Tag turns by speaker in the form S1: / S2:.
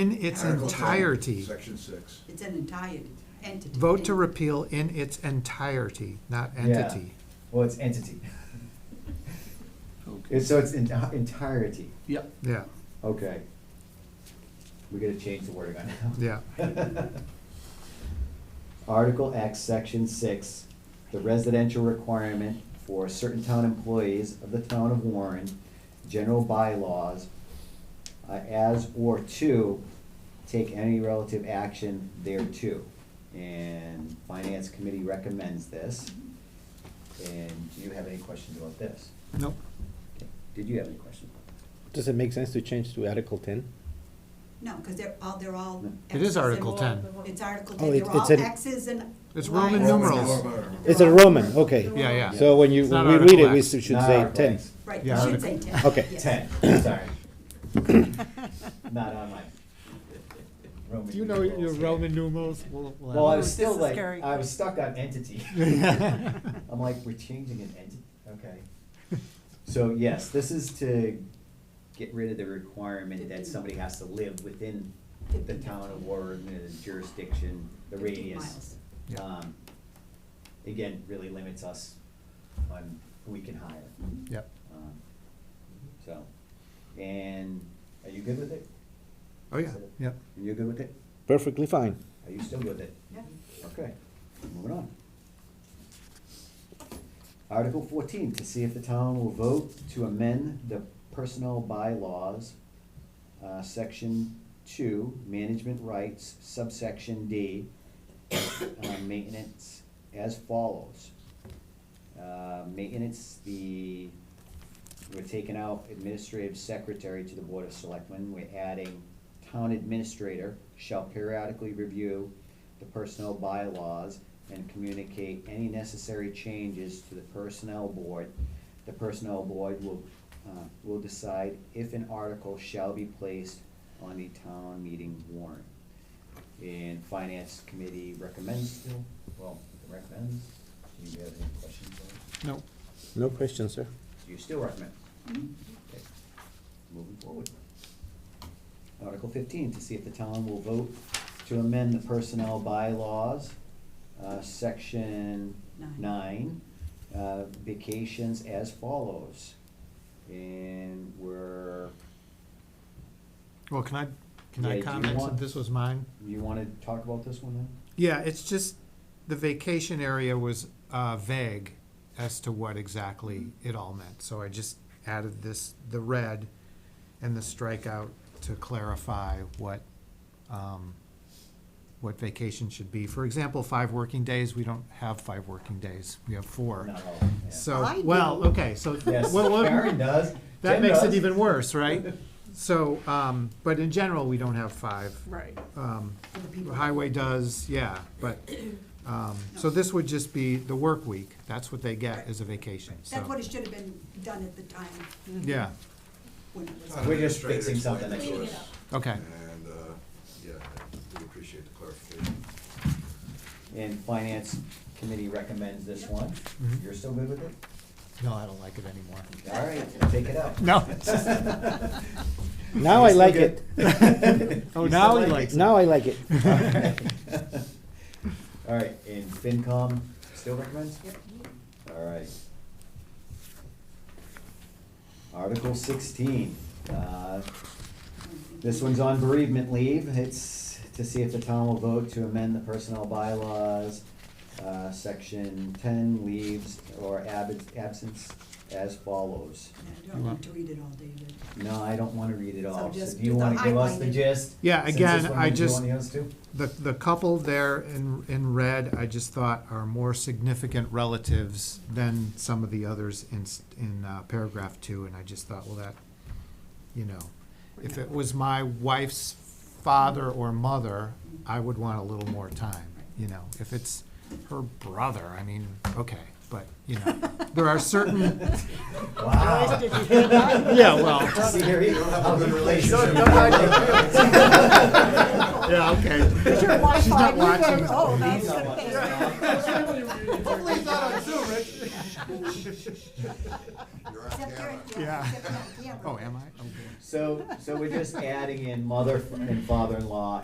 S1: In its
S2: Article ten,
S1: entirety,
S2: Section six.
S3: It's an entire entity.
S1: vote to repeal in its entirety, not
S4: Yeah.
S1: entity.
S4: Well, it's entity. It's- So it's in- entirety.
S5: Yeah,
S1: Yeah,
S4: Okay. We gotta change the wording on
S1: yeah.
S4: that. Article X, section six, the residential requirement for certain town employees of the town of Warren, general bylaws, uh, as or to take any relative action thereto. And finance committee recommends this. And do you have any questions about this?
S1: Nope.
S4: Did you have any questions?
S6: Does it make sense to change to Article ten?
S3: No, because they're all, they're all.
S1: It is
S3: X's and
S1: Article ten.
S3: Y. It's Article
S6: Oh,
S3: ten,
S6: it-
S3: they're all
S6: it's an-
S3: X's and.
S1: It's
S3: Ys.
S1: Roman numerals.
S6: It's a Roman, okay.
S1: Yeah, yeah.
S6: So when you,
S1: It's not
S6: when we read it,
S1: Article
S6: we
S1: X.
S6: should
S4: Not
S6: say
S4: Article
S6: ten.
S4: X.
S3: Right, you
S1: Yeah,
S3: should say ten.
S6: Okay.
S3: yes.
S4: Ten, sorry. Not on my. Roman numerals here.
S1: numerals?
S4: Well, I was
S7: This
S4: still
S7: is
S4: like,
S7: scary.
S4: I was stuck on entity. I'm like, we're changing an entity, okay. So yes, this is to get rid of the requirement that somebody has to live within the town of Warren, the jurisdiction, the
S3: Fifteen
S4: radius.
S3: miles.
S1: Yeah.
S4: Um, Again, really limits us on who we can hire.
S3: Mm-hmm.
S1: Yep.
S4: Um, So, and are you good with it?
S1: Oh, yeah, yep.
S4: You're good with it?
S6: Perfectly fine.
S4: Are you still good with it?
S3: Yeah.
S4: Okay, moving on. Article fourteen, to see if the town will vote to amend the personnel bylaws, uh, section two, management rights, subsection D, uh, maintenance, as follows. Uh, maintenance, the, we're taking out administrative secretary to the Board of Selectmen, we're adding town administrator shall periodically review the personnel bylaws and communicate any necessary changes to the personnel board. The personnel board will, uh, will decide if an article shall be placed on the town meeting warrant. And finance committee recommends, still, well, recommends, do you have any questions on it?
S1: No,
S6: No question, sir.
S4: Do you still recommend?
S3: Mhm.
S4: Okay, Moving forward. Article fifteen, to see if the town will vote to amend the personnel bylaws, uh, section
S3: Nine.
S4: nine, uh, vacations as follows. And we're,
S1: well, can I, can
S4: Yeah, do
S1: I
S4: you
S1: comment
S4: want-
S1: since this was mine?
S4: you wanna talk about this one then?
S1: Yeah, it's just, the vacation area was uh, vague as to what exactly
S4: Mm-hmm.
S1: it all meant. So I just added this, the red and the strikeout to clarify what, um, what vacation should be. For example, five working days, we don't have five working days, we have four.
S4: Not all, yeah.
S3: I
S1: So,
S3: do.
S1: well, okay, so,
S4: Yes,
S1: well, well,
S4: Karen does.
S1: that
S4: Jen
S1: makes it
S4: does.
S1: even worse, right? So, um, but in general, we don't have five.
S7: Right.
S1: Um,
S3: For the people.
S1: Highway does, yeah, but, um, so this would just be the work week, that's what they get is a vacation, so.
S3: That's what it should have been done at the time
S1: Yeah,
S3: when it was.
S2: Town
S4: We're just
S2: administrator
S4: fixing something
S2: explained
S4: that
S2: it
S4: goes-
S2: to us,
S1: okay,
S2: And, uh, yeah, I do appreciate the clarification.
S4: And finance committee recommends this one.
S1: Mhm.
S4: You're still good with it?
S1: no, I don't like it anymore.
S4: All right, take it out.
S1: No.
S6: Now I like it.
S1: Oh, now he likes
S6: Now I like it.
S4: All right, and FinCom still recommends? Yep. All right. Article sixteen, uh, this one's on bereavement leave. It's to see if the town will vote to amend the personnel bylaws, uh, section ten, leaves or ab- absence as follows.
S3: I don't want to read it all, David.
S4: No, I don't wanna read it
S3: So
S4: all.
S3: just
S4: do you
S3: do the
S4: wanna give us the
S3: highlighted.
S4: gist?
S1: Yeah,
S4: Since
S1: again,
S4: this one
S1: I
S4: went to
S1: just-
S4: one of the others too?
S1: The, the couple there in, in red, I just thought are more significant relatives than some of the others in, s- in uh, paragraph two, and I just thought, well, that, you know, if it was my wife's father or mother, I would want a little more time, you know, if it's her brother, I mean, okay, but, you know, there are certain,
S4: Wow.
S1: yeah, well,
S4: See, here you go.
S2: have a good relationship.
S1: yeah, okay.
S3: Is your Wi-Fi
S1: She's not
S3: moving?
S1: watching.
S3: Oh,
S4: He's
S3: that's
S4: not watching.
S3: good.
S2: You're on
S3: Except you're-
S1: Yeah.
S3: except you're on camera.
S1: Oh, am I? Okay.
S4: So, so we're just adding in mother and father-in-law